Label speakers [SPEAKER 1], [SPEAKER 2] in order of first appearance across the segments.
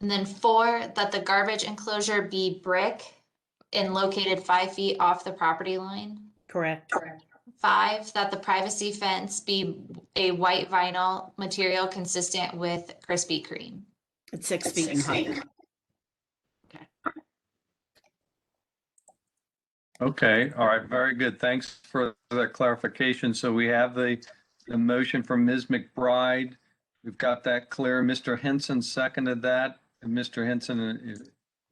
[SPEAKER 1] And then four, that the garbage enclosure be brick and located five feet off the property line.
[SPEAKER 2] Correct.
[SPEAKER 1] Five, that the privacy fence be a white vinyl material consistent with Krispy Kreme.
[SPEAKER 2] It's six feet in height.
[SPEAKER 3] Okay, all right, very good. Thanks for that clarification. So we have the, the motion from Ms. McBride. We've got that clear. Mr. Henson seconded that. And Mr. Henson, if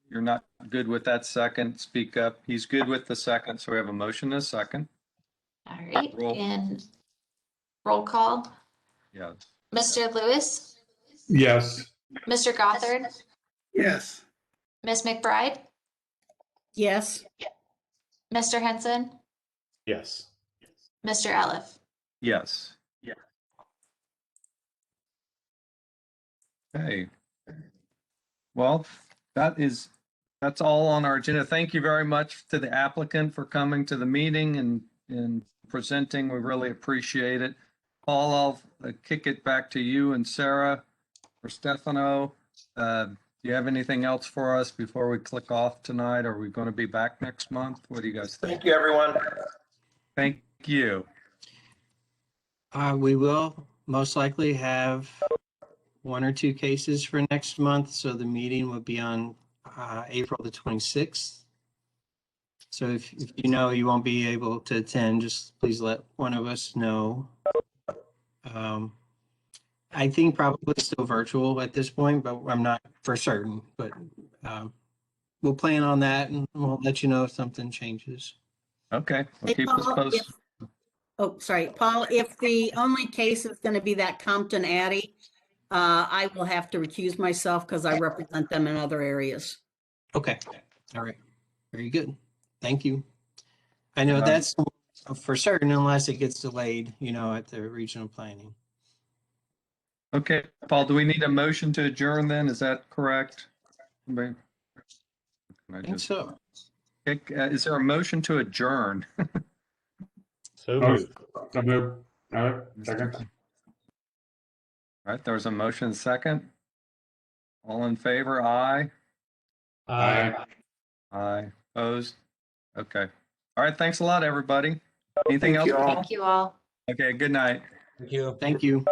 [SPEAKER 3] you're not good with that second, speak up. He's good with the second, so we have a motion and a second.
[SPEAKER 1] All right,
[SPEAKER 3] Roll.
[SPEAKER 1] and roll call.
[SPEAKER 3] Yeah.
[SPEAKER 1] Mr. Lewis,
[SPEAKER 4] Yes.
[SPEAKER 1] Mr. Gothard,
[SPEAKER 4] Yes.
[SPEAKER 1] Ms. McBride,
[SPEAKER 2] Yes,
[SPEAKER 1] Mr. Henson,
[SPEAKER 4] Yes.
[SPEAKER 1] Mr. Eliff.
[SPEAKER 3] Yes. Yeah. Okay. Well, that is, that's all on our agenda. Thank you very much to the applicant for coming to the meeting and, and presenting. We really appreciate it. Paul, I'll uh, kick it back to you and Sarah or Stefano. Uh, Do you have anything else for us before we click off tonight? Are we going to be back next month? What do you guys think?
[SPEAKER 5] Thank you, everyone.
[SPEAKER 3] Thank you.
[SPEAKER 6] Uh, we will most likely have one or two cases for next month, so the meeting will be on, uh, April the twenty-sixth. So if, if you know you won't be able to attend, just please let one of us know. Um, I think probably still virtual at this point, but I'm not for certain, but, um, we'll plan on that and we'll let you know if something changes.
[SPEAKER 3] Okay. we'll
[SPEAKER 2] Hey,
[SPEAKER 3] keep us
[SPEAKER 2] Paul,
[SPEAKER 3] posted.
[SPEAKER 2] if- oh, sorry, Paul, if the only case is going to be that Compton Addy, uh, I will have to recuse myself because I represent them in other areas.
[SPEAKER 6] Okay, all right, very good, thank you. I know
[SPEAKER 3] Um,
[SPEAKER 6] that's for certain unless it gets delayed, you know, at the regional planning.
[SPEAKER 3] Okay, Paul, do we need a motion to adjourn then? Is that correct? Anybody? Can I
[SPEAKER 6] I think
[SPEAKER 3] just-
[SPEAKER 6] so.
[SPEAKER 3] Kick- uh, Is there a motion to adjourn?
[SPEAKER 4] So moved. So moved. All right, second.
[SPEAKER 3] All right, there's a motion second. All in favor, aye?
[SPEAKER 4] Aye.
[SPEAKER 3] Aye. Opposed? Okay. All right, thanks a lot, everybody. Anything else?
[SPEAKER 5] you all.
[SPEAKER 3] Paul?
[SPEAKER 1] Thank you all.
[SPEAKER 3] Okay, good night.
[SPEAKER 6] Thank you.